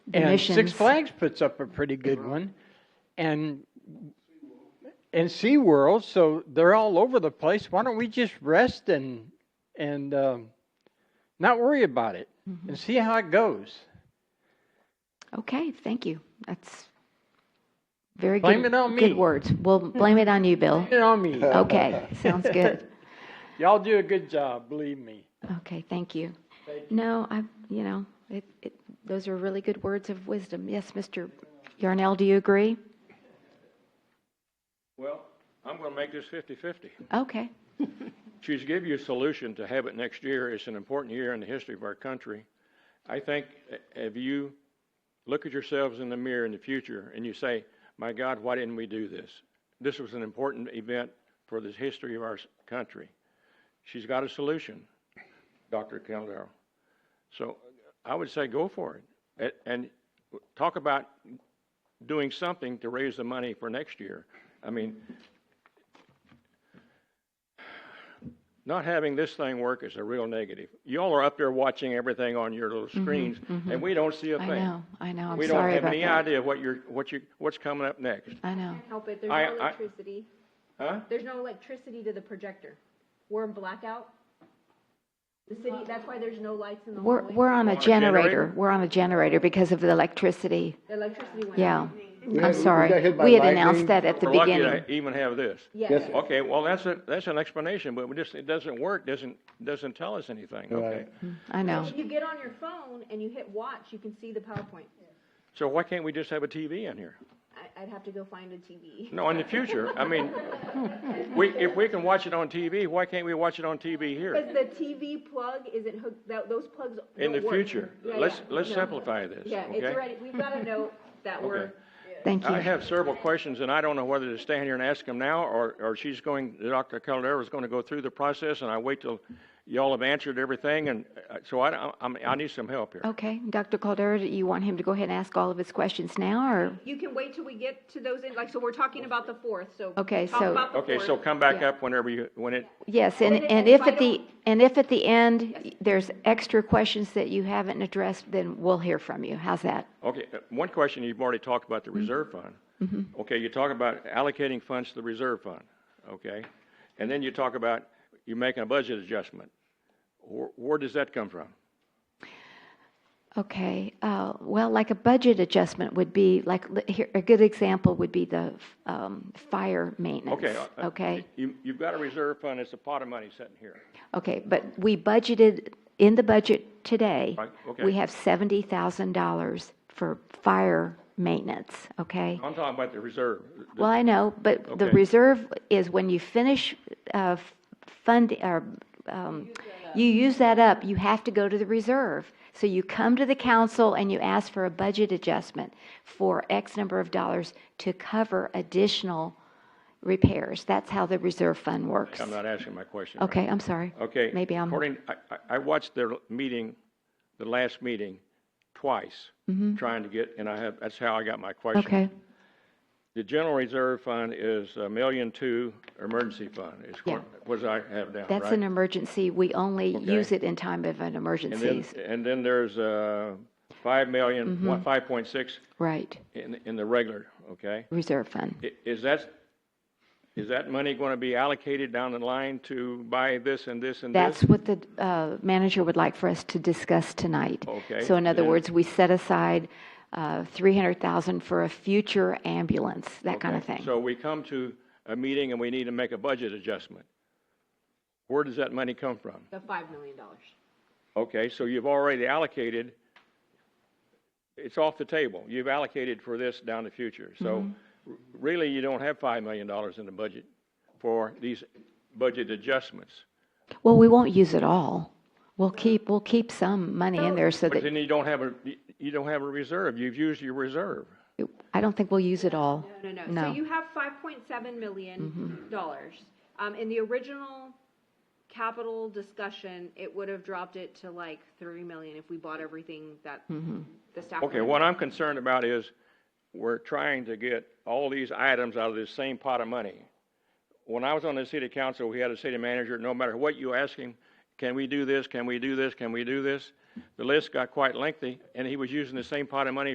And missions. Six Flags puts up a pretty good one. And and SeaWorld, so they're all over the place. Why don't we just rest and and um, not worry about it and see how it goes? Okay, thank you. That's very good. Blame it on me. Good words. We'll blame it on you, Bill. You know me. Okay, sounds good. Y'all do a good job, believe me. Okay, thank you. No, I, you know, it, it, those are really good words of wisdom. Yes, Mr. Yarnell, do you agree? Well, I'm going to make this 50/50. Okay, She's give you a solution to have it next year. It's an important year in the history of our country. I think uh, if you look at yourselves in the mirror in the future and you say, "My God, why didn't we do this? This was an important event for the history of our s- country." She's got a solution, Dr. Caldero. So I would say go for it A- and talk about doing something to raise the money for next year. I mean, not having this thing work is a real negative. Y'all are up there watching everything on your little screens, and we don't see a Mm-hmm. I thing. know, I know, I'm We don't sorry have about any that. idea what you're, what you, what's coming up next, I know, help it. There's I- no I- electricity. huh? There's no electricity to the projector. We're in blackout. The city, that's why there's no lights in the we're, hallway. we're on a a generator? generator, we're on a generator because of the electricity, The electricity went out. yeah. Yeah, I'm we got sorry, hit by we had lightning. announced that at the We're lucky beginning. to even have this. Yes. sir. Okay, well, that's a, that's an explanation, but we just, it doesn't work, doesn't, doesn't tell us anything, okay? Right. I know, If you get on your phone and you hit watch, you can see the PowerPoint. So why can't we just have a TV in here? I, I'd have to go find a TV. No, in the future, I mean, we, if we can watch it on TV, why can't we watch it on TV here? Because the TV plug isn't hooked, tho- those plugs In the don't work. future, Yeah, let's, yeah. let's No. simplify this, Yeah, it's okay? already, we've got a note that we're, Okay. thank I you. have several questions, and I don't know whether to stand here and ask them now, or, or she's going, Dr. Caldera is going to go through the process, and I wait till y'all have answered everything, and uh, so I, I'm, I need some help here. Okay, Dr. Caldera, do you want him to go ahead and ask all of his questions now, or? you can wait till we get to those, in- like, so we're talking about the fourth, so. Okay, talk so- about the Okay, fourth. so come back up whenever you, when it, Yes, and, then and if if I at the, don't- and if at the end, there's extra questions that you haven't addressed, then we'll hear from you. How's that? Okay, uh, one question, you've already talked about the reserve fund. Okay, you talk about allocating funds to the reserve fund, okay? And then you talk about you making a budget adjustment. Where, where does that come from? Okay, uh, well, like a budget adjustment would be, like, li- here, a good example would be the, um, fire maintenance. Okay. uh, uh, Okay, You, you've got a reserve fund, it's a pot of money sitting here. okay, but we budgeted, in the budget today, Right, okay. we have seventy thousand dollars for fire maintenance, okay? I'm talking about the reserve. Well, I know, but the Okay. reserve is when you finish uh, f- fund, or um, you use that up, you have to go to the reserve. So you come to the council and you ask for a budget adjustment for X number of dollars to cover additional repairs. That's how the reserve fund works. I'm not asking my question. right. Okay, I'm sorry. Okay. Maybe I'm, According, I, I- I watched their meeting, the last meeting, twice, trying to get, and I have, that's how I got my question. Mm-hmm. okay, The general reserve fund is a million two emergency fund, is what, what I have down, that's an right? emergency. We only use it in time of an And then, emergency. Mm-hmm. and then there's, uh, five million, one, five point six Right, in, in the regular, okay? reserve fund. I- Is that, is that money gonna be allocated down the line to buy this and this and this? That's what the uh, manager would like for us to discuss tonight. Okay, So in other then- words, we set aside uh, 300,000 for a future ambulance, that kind of Okay, thing. So we come to a meeting and we need to make a budget adjustment. Where does that money come from? The five million dollars. Okay, so you've already allocated, it's off the table. You've allocated for this down the future. So r- really, you don't have $5 million in the budget for these budget adjustments. Well, we won't use it all. We'll keep, we'll keep some money in there so But that, then you don't have a, you- you don't have a reserve. You've used your reserve. I don't think we'll use it all. No, no, no. No. So you have five point seven million dollars. Um, in the original capital discussion, it would have dropped it to like three million if we bought everything that the staff. Okay, what I'm concerned about is we're trying to get all these items out of this same pot of money. When I was on the city council, we had a city manager, no matter what you ask him, can we do this, can we do this, can we do this? The list got quite lengthy, and he was using the same pot of money